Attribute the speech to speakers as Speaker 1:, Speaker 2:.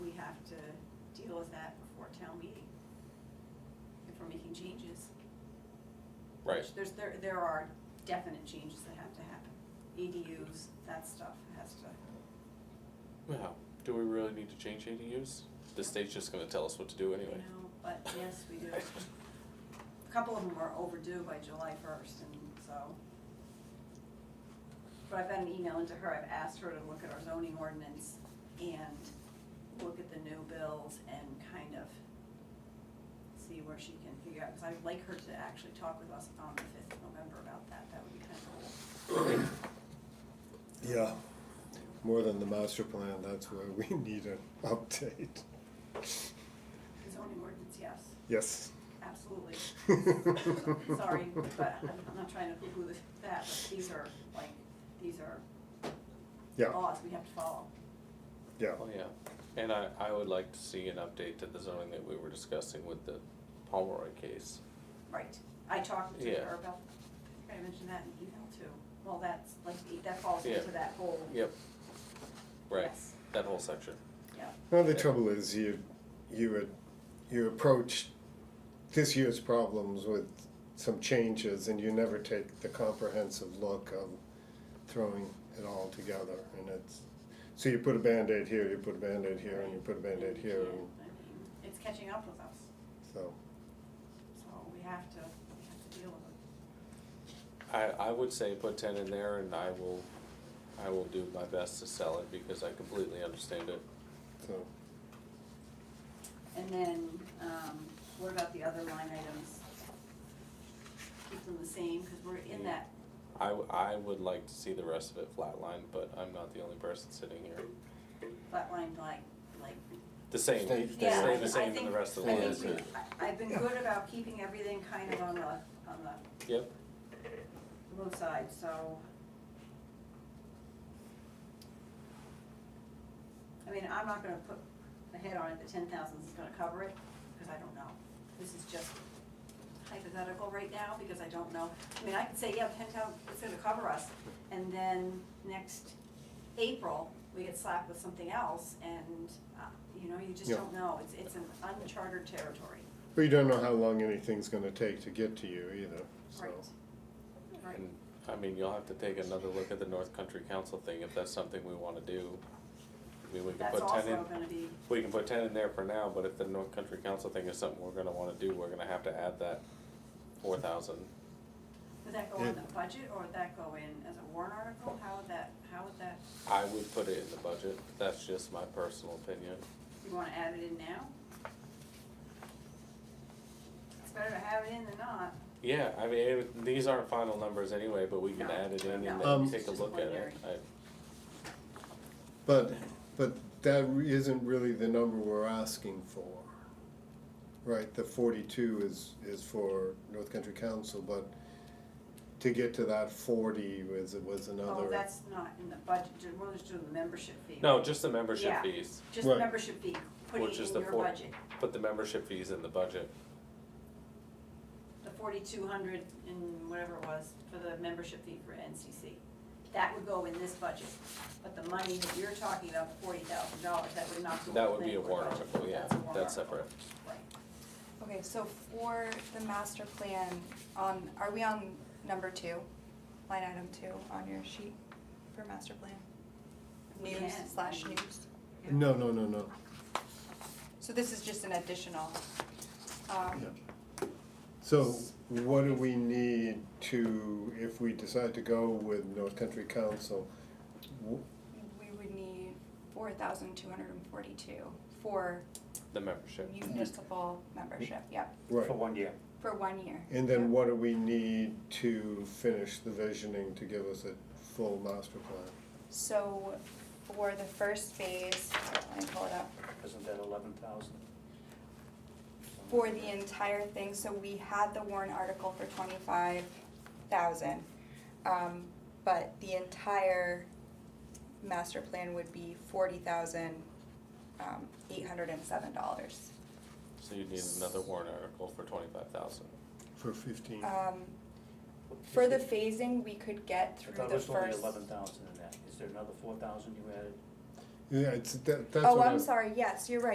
Speaker 1: comfortable with that before town meeting. If we're making changes.
Speaker 2: Right,
Speaker 1: There's, there, there are definite changes that have to happen. ADUs, that stuff has to,
Speaker 2: well, do we really need to change ADUs? The state's just gonna tell us what to do
Speaker 1: you
Speaker 2: anyway.
Speaker 1: know, but yes, we do. A couple of them are overdue by July first, and so. But I've been emailing to her, I've asked her to look at our zoning ordinance and look at the new bills and kind of see where she can figure out, because I'd like her to actually talk with us on the fifth of November about that, that would be kind of cool.
Speaker 3: Yeah, more than the master plan, that's where we need an update.
Speaker 1: Zoning ordinance, yes,
Speaker 3: Yes.
Speaker 1: absolutely. Sorry, but I'm I'm not trying to poo-poo this, that, but these are, like, these are
Speaker 3: Yeah,
Speaker 1: laws we have to follow.
Speaker 3: yeah,
Speaker 2: Oh, yeah, and I, I would like to see an update to the zoning that we were discussing with the Pomeroy case.
Speaker 1: Right, I talked to
Speaker 2: Yeah.
Speaker 1: her about, I think I mentioned that in email too. Well, that's, like, that falls
Speaker 2: Yeah.
Speaker 1: into that whole,
Speaker 2: Yep. Right,
Speaker 1: Yes.
Speaker 2: that whole section.
Speaker 1: yeah,
Speaker 3: well, the trouble is you, you would, you approach this year's problems with some changes and you never take the comprehensive look of throwing it all together and it's, so you put a Band-Aid here, you put a Band-Aid here, and you put a Band-Aid
Speaker 1: you
Speaker 3: here,
Speaker 1: can't-
Speaker 3: and
Speaker 1: I mean, It's catching up with us,
Speaker 3: so,
Speaker 1: so we have to, we have to deal with it.
Speaker 2: I, I would say put ten in there and I will, I will do my best to sell it because I completely understand it.
Speaker 3: so.
Speaker 1: And then, um, what about the other line items? Keep them the same, because we're in that
Speaker 2: I, w- I would like to see the rest of it flatlined, but I'm not the only person sitting here.
Speaker 1: flatline, like, like.
Speaker 2: The same,
Speaker 4: Stay-
Speaker 2: they
Speaker 4: stay
Speaker 1: Yeah,
Speaker 2: stay
Speaker 1: I- I
Speaker 2: the same in the
Speaker 1: think-
Speaker 2: rest of the
Speaker 1: I
Speaker 2: line.
Speaker 1: think
Speaker 4: lines,
Speaker 1: we-
Speaker 4: yeah.
Speaker 1: I- I've been good about keeping everything kind of on the, on the
Speaker 2: Yep,
Speaker 1: low side, so. I mean, I'm not gonna put my head on it that ten thousand is gonna cover it, because I don't know. This is just hypothetical right now, because I don't know. I mean, I could say, yeah, ten thousand, it's gonna cover us, and then next April, we get slapped with something else, and, uh, you know, you just
Speaker 3: Yeah.
Speaker 1: don't know. It's, it's an uncharted territory.
Speaker 3: But you don't know how long anything's gonna take to get to you either, so.
Speaker 1: Right. Right.
Speaker 2: and, I mean, you'll have to take another look at the North Country Council thing if that's something we wanna do. I mean, we can
Speaker 1: That's
Speaker 2: put ten in,
Speaker 1: also gonna be,
Speaker 2: we can put ten in there for now, but if the North Country Council thing is something we're gonna wanna do, we're gonna have to add that four thousand.
Speaker 1: would that go in the budget, or would that go in as a warrant article? How would that, how would that,
Speaker 2: I would put it in the budget, that's just my personal opinion.
Speaker 1: you wanna add it in now? It's better to have it in than not.
Speaker 2: Yeah, I mean, it- these aren't final numbers anyway, but we can
Speaker 1: No,
Speaker 2: add it in and
Speaker 1: no,
Speaker 2: then
Speaker 3: it's
Speaker 2: take a
Speaker 1: just
Speaker 2: look at it.
Speaker 1: preliminary.
Speaker 2: I-
Speaker 3: But, but that re- isn't really the number we're asking for. Right, the forty-two is, is for North Country Council, but to get to that forty was, was
Speaker 1: Oh,
Speaker 3: another,
Speaker 1: that's not in the budget, Ju- we're just doing the membership fee.
Speaker 2: No, just the membership
Speaker 1: Yeah.
Speaker 2: fees,
Speaker 1: Just the
Speaker 3: Right.
Speaker 1: membership fee, putting
Speaker 2: Which
Speaker 1: it
Speaker 2: is
Speaker 1: in
Speaker 2: the
Speaker 1: your
Speaker 2: four-
Speaker 1: budget.
Speaker 2: put the membership fees in the budget.
Speaker 1: The forty-two hundred and whatever it was for the membership fee for NCC. That would go in this budget, but the money that you're talking about, the forty thousand dollars, that would not go in the
Speaker 2: That would be a
Speaker 1: planning board
Speaker 2: warrant
Speaker 1: budget.
Speaker 2: article, yeah,
Speaker 1: That's a warrant
Speaker 2: that's
Speaker 1: article.
Speaker 2: separate.
Speaker 1: Right.
Speaker 4: Okay, so for the master plan, on, are we on number two, line item two on your sheet for master plan?
Speaker 1: We
Speaker 4: News
Speaker 1: can.
Speaker 4: slash news.
Speaker 3: no, no, no, no.
Speaker 4: So this is just an additional, um,
Speaker 3: So what do we need to, if we decide to go with North Country Council? W-
Speaker 4: we would need four thousand two hundred and forty-two for
Speaker 2: The membership.
Speaker 4: municipal membership, yep,
Speaker 3: Right,
Speaker 5: For one year.
Speaker 4: for one year.
Speaker 3: and then
Speaker 4: Yep.
Speaker 3: what do we need to finish the visioning to give us a full master plan?
Speaker 4: So for the first phase, let me pull it up.
Speaker 5: Isn't that eleven thousand?
Speaker 4: for the entire thing, so we had the warrant article for twenty-five thousand. Um, but the entire master plan would be forty thousand, um, eight hundred and seven dollars.
Speaker 2: So you need another warrant article for twenty-five thousand.
Speaker 3: For
Speaker 1: Uh,
Speaker 3: fifteen?
Speaker 4: Um, for the phasing, we could get
Speaker 5: I
Speaker 4: through
Speaker 5: thought it
Speaker 4: the
Speaker 5: was only
Speaker 4: first.
Speaker 5: eleven thousand in that. Is there another four thousand you added?
Speaker 3: Yeah, it's, that, that's what
Speaker 4: Oh,
Speaker 3: I.
Speaker 4: I'm sorry, yes, you're right,